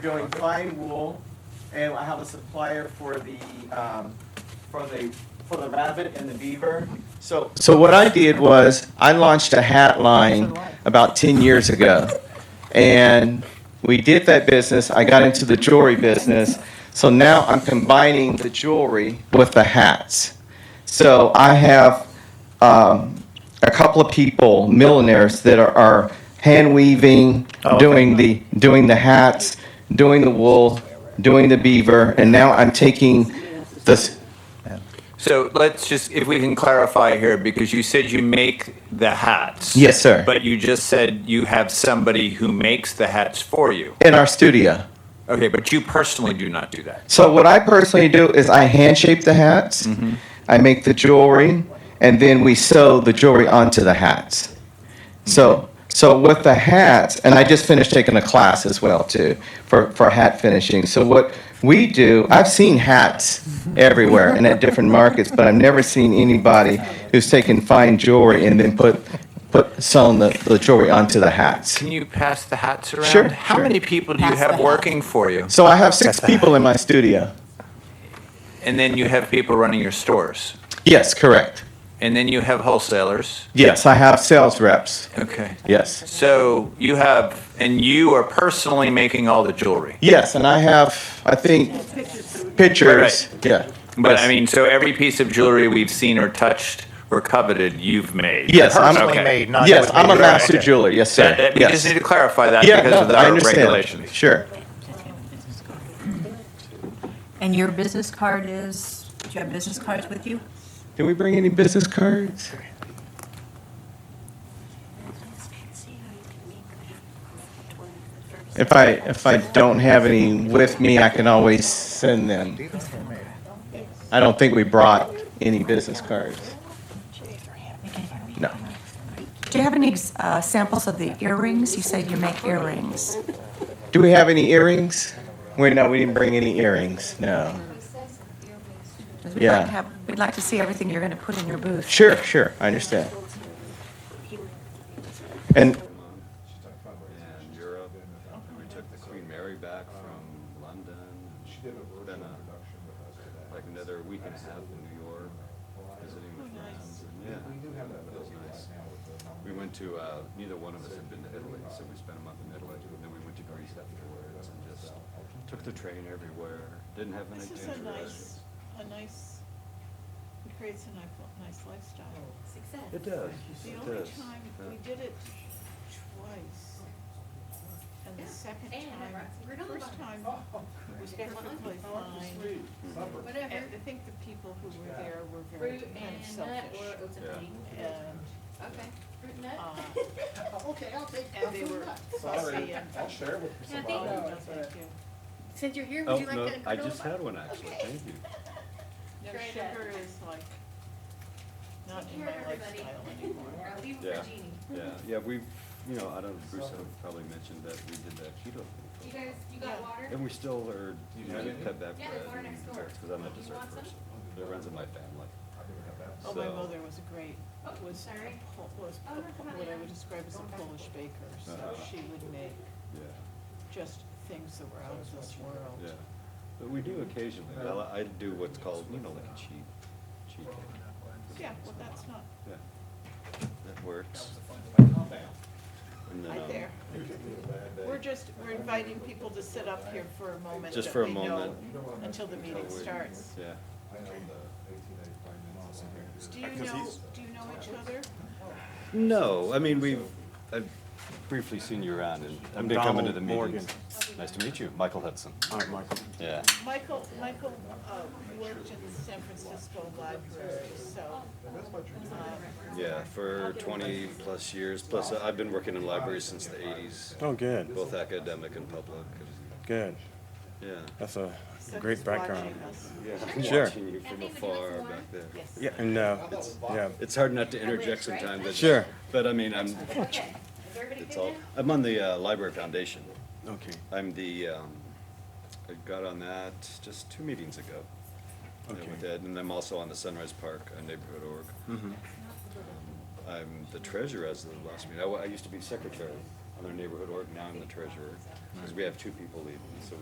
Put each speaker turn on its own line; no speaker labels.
We're doing fine wool, and I have a supplier for the, um, for the, for the rabbit and the beaver. So, so what I did was, I launched a hat line about ten years ago. And we did that business, I got into the jewelry business, so now I'm combining the jewelry with the hats. So I have um, a couple of people, milliners, that are, are hand weaving, doing the doing the hats, doing the wool, doing the beaver, and now I'm taking this.
So let's just, if we can clarify here, because you said you make the hats.
Yes, sir.
But you just said you have somebody who makes the hats for you.
in our studio.
Okay, but you personally do not do that.
So what I personally do is I hand shape the hats, I make the jewelry, and then we sew the jewelry onto the hats. So so with the hats, and I just finished taking a class as well too for, for hat finishing. So what we do, I've seen hats everywhere and at different markets, but I've never seen anybody who's taken fine jewelry and then put put sewn the, the jewelry onto the hats.
Can you pass the hats around?
Sure,
How
sure.
many people do you
Pass the
have
hat.
working for you?
So I have six people in my studio.
And then you have people running your stores.
Yes, correct.
And then you have wholesalers.
Yes, I have sales reps.
Okay.
Yes.
So you have, and you are personally making all the jewelry.
Yes, and I have, I think, pictures. Yeah.
But
Yes.
I mean, so every piece of jewelry we've seen or touched or coveted, you've made.
Yes, I'm-
personally
Okay.
made, not
yes,
with
I'm a
me.
master
Okay.
jeweler. Yes, sir.
That, that- we
yes.
just uh, need to clarify that
yeah,
because
no,
of the
I
our
understand.
regulations.
Sure.
And your business card is, do you have business cards with you?
Can we bring any business cards? If I if I don't have any with me, I can always send them. I don't think we brought any business cards. No.
Do you have any uh, samples of the earrings? You said you make earrings.
Do we have any earrings? Wait, no, we didn't bring any earrings. No.
We'd
Yeah.
like to have, we'd like to see everything you're going to put in your booth.
Sure, sure, I understand. And
She's talking about in Europe. We took the Queen Mary back from London. She did a virtual production with us today. Like another week and a half in New York, visiting
Oh,
with friends. and Yeah. We do have that. Feels nice. We went to, uh, neither one of us had been to Italy, so we spent a month in Italy. And then we went to Greece afterwards and just took the train everywhere. Didn't have any
This is a
dangerous
nice, a nice, it creates a ni- nice lifestyle.
Oh,
It does,
The
it
only
does.
time,
Yeah.
we did it twice. And the second
And I
time,
brought some
the
granola bars.
first time was perfectly fine. And
Whatever.
I think the people who were there were very
Fruit
kind of
and nut
selfish.
or oats and
Yeah.
honey.
And,
Okay. Fruit
uh,
nut.
Okay, I'll take, I'll
and they were fussy and.
I'll share with you.
Kathy,
Oh, no, thank you.
since you're here,
Oh,
would you like
no,
a
I
granola
just
bar?
had one actually,
Okay.
thank you.
No,
Great.
sugar is like, not
Take
in
care
my
of everybody.
lifestyle anymore.
Or I'll leave it
Yeah.
for Jeannie.
Yeah, yeah, we've, you know, I don't, Bruce had probably mentioned that we did that
You
keto thing.
guys, you got
Yeah.
water?
And we still are, you know, cut back
Yeah,
bread
there's water
and
next door.
desserts, because I'm a
Do you
dessert
want some?
person. It runs in my family.
Oh, my
So-
mother was a great,
Oh,
was a
sorry.
Pol- was
Oh,
a
no,
Pol-
come on
what I
in.
would describe as a Polish baker, so
Uh-huh.
she would make
Yeah,
just things that were out of this world.
yeah. But we do occasionally, but I li- I do what's called, you know, like a cheat, cheat day.
Yeah, well, that's not
Yeah. That works. And then,
right
um,
there. We're just, we're inviting people to sit up here for a moment.
Just
that
for a
we know
moment.
Until the meeting starts.
Yeah.
Do you know, do you know each other?
No, I mean, we've, I've briefly seen you around and I've been coming to the
Donald Morgan.
meetings. Nice to meet you, Michael Hudson.
All right, Michael.
Yeah.
Michael, Michael uh, worked in the San Francisco library, so. uh,
Yeah, for 20 plus years. Plus, uh, I've been working in libraries since the 80s,
Oh, good,
both academic and public.
good.
Yeah.
That's a
so
great
he's
background.
watching us.
I'm
Sure.
Watching you from afar back there.
Yes.
Yeah, and, uh, yeah,
It's hard not to interject sometimes. I just-
Sure.
But I mean, I'm,
Okay. Is everybody
it's
good
all,
now?
I'm on the uh, Library Foundation.
okay,
I'm the, um, I got on that just two meetings ago. uh,
Okay.
With Ed, and I'm also on the Sunrise Park uh, Neighborhood Org. I'm the treasurer as of the last meeting. I, wa- I used to be secretary other neighborhood org, now I'm the treasurer, because we have two people leaving, so